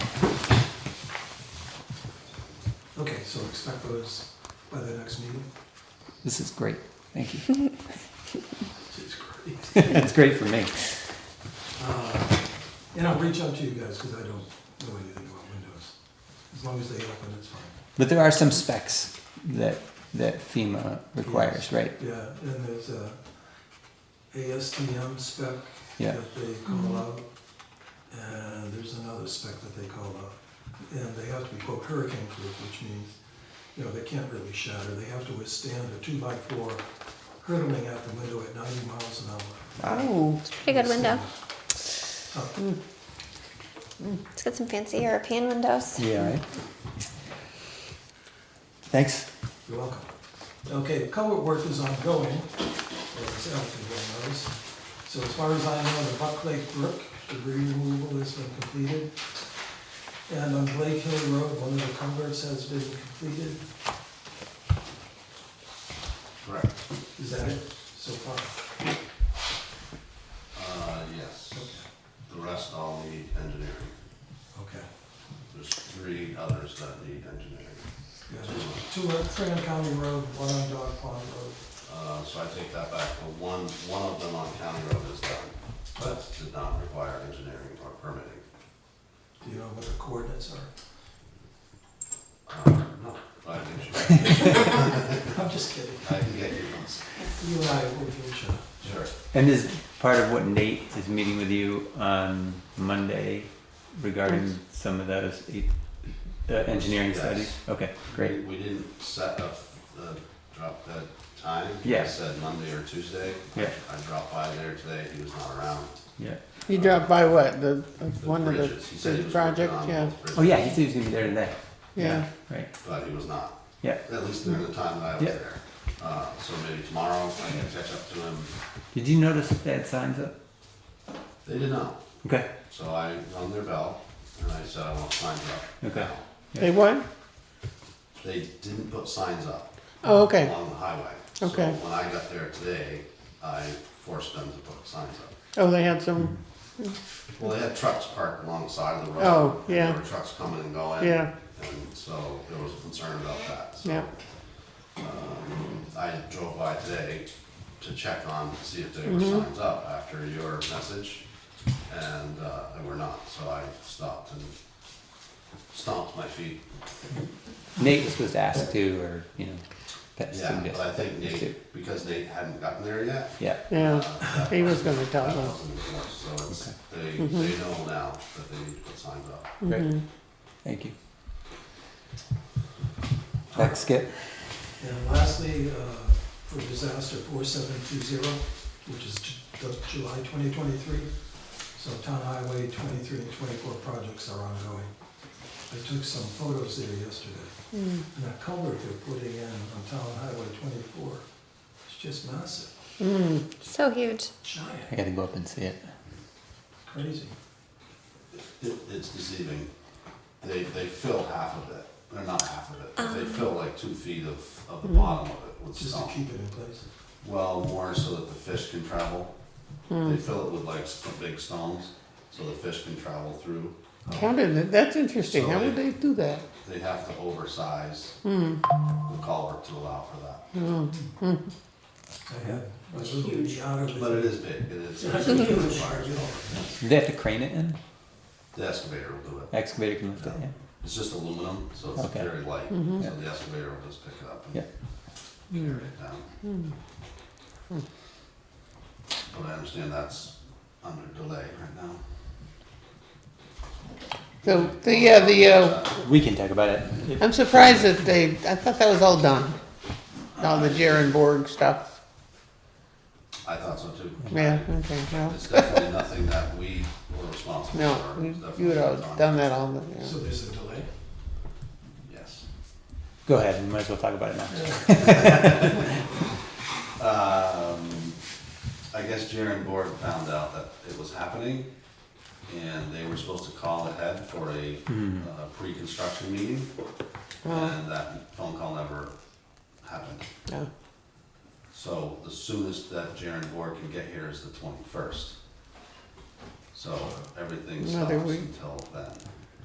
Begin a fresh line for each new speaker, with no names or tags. Okay, so expect those by the next meeting.
This is great. Thank you.
It's great.
it's great for me.
Uh, And I'll reach out to you guys because I don't know anything about windows. As long as they open, it's fine.
But there are some specs that that FEMA requires, right?
Yeah, and there's a ASTM spec
Yeah.
that they
Mm-hmm.
call out. And there's another spec that they call out. And they have to be quote hurricane proof, which means, you know, they can't really shatter. They have to withstand a two by four hurtling out the window at ninety miles an hour.
Oh,
Pretty good window.
Oh,
It's got some fancy European windows.
yeah. Right? Thanks.
You're welcome. Okay, culvert work is ongoing, or it's active, I knows. So as far as I know, the Buck Lake Brook debris removal has been completed. And on Blake Hill Road, one of the culverts has been completed.
Correct.
Is that it so far?
Uh, yes. The rest all need engineering.
Okay.
There's three others that need engineering.
Yeah, there's two on Fran County Road, one on Dog Pond Road.
Uh, so I take that back. The one, one of them on County Road is done. That did not require engineering or permitting.
Do you know what the coordinates are?
Uh, no, I can, show you.
I'm just kidding.
I can get you ones.
You and I will reach out.
Sure.
And is part of what Nate is meeting with you on Monday regarding some of those e- uh, engineering
Yes.
studies? Okay, great.
We we didn't set up the drop dead time.
Yeah.
I said Monday or Tuesday.
Yeah.
I dropped by there today. He was not around.
Yeah.
You dropped by what, the, uh,
The
one of the
bridges, he said he
big
was working
project,
on
yeah,
both bridges,
Oh yeah, he said he was gonna be there today.
yeah.
Right.
But he was not.
Yeah.
At least during the time that I was
Yeah.
there. Uh, so maybe tomorrow I can catch up to him.
Did you notice that they had signs up?
They did not.
Okay.
So I rung their bell and I said I want signs up.
Okay.
now."
Yeah.
They what?
They didn't put signs up
Oh, okay,
along the highway.
Okay.
So when I got there today, I forced them to put signs up.
oh, they had some,
Well, they had trucks parked alongside the road.
Oh,
and
yeah.
There were trucks coming and going.
Yeah.
And so there was concern about that. So
yeah,
I drove by today to check on, to see if they were
Mm-hmm.
signs up after your message, and, uh, they were not, so I stopped and stomped my feet.
Nate was supposed to ask too, or you know, that's
Yeah, but I think
Me too.
Nate, because Nate hadn't gotten there yet.
Yeah.
yeah,
uh,
he was gonna tell Mm-hmm.
That
us.
wasn't enforced, so it's, they, they know now that they need to put signs up.
Great.
Mm-hmm.
Thank you. Thanks, Skip.
And lastly, uh, for disaster 4720, which is Ju- Ju- July 2023, so town highway 23 and 24 projects are ongoing. I took some photos there yesterday.
Mm.
And that culvert they're putting in on town highway 24, it's just massive,
Mm,
So huge.
I
giant,
gotta go up and see it.
crazy.
It, it's deceiving. They, they fill half of it, or not half of it, but they
Uh-huh.
fill like two feet of, of the
Mm-hmm.
bottom of it with
Just to
stone.
keep it in place.
Well, more so that the fish can travel. They fill it with like some big stones, so the fish can travel through.
how did, that- that's interesting, how would they do that?
They have to oversize the culvert to allow for that.
I had, I was looking out of
But it
it.
is big, it is.
It's
it's a
huge.
big fire.
Do they have to crane it in?
The excavator will do it.
Excavator can lift it. Yeah.
It's just aluminum, so it's
Okay.
very light,
Yeah.
so the excavator will just pick it up and
Yeah.
carry it down. But I understand that's under delay right now.
So, the, yeah, the, uh,
We can talk about it. It-
I'm surprised that they, I thought that was all done, all the Jaren Borg stuff,
I thought so too.
yeah, okay, well,
It's definitely nothing that we were responsible for.
no,
It's
you-
definitely
you would have
on-
done that all, the-
So
yeah.
there's a delay.
Yes.
Go ahead. We might as well talk about it now.
Um, I guess Jaren Borg found out that it was happening, and they were supposed to call ahead for a, uh pre-construction meeting,
Uh-huh.
and that phone call never happened.
no.
So the soonest that Jaren Borg can get here is the twenty-first. So everything stops
Another week.
until then.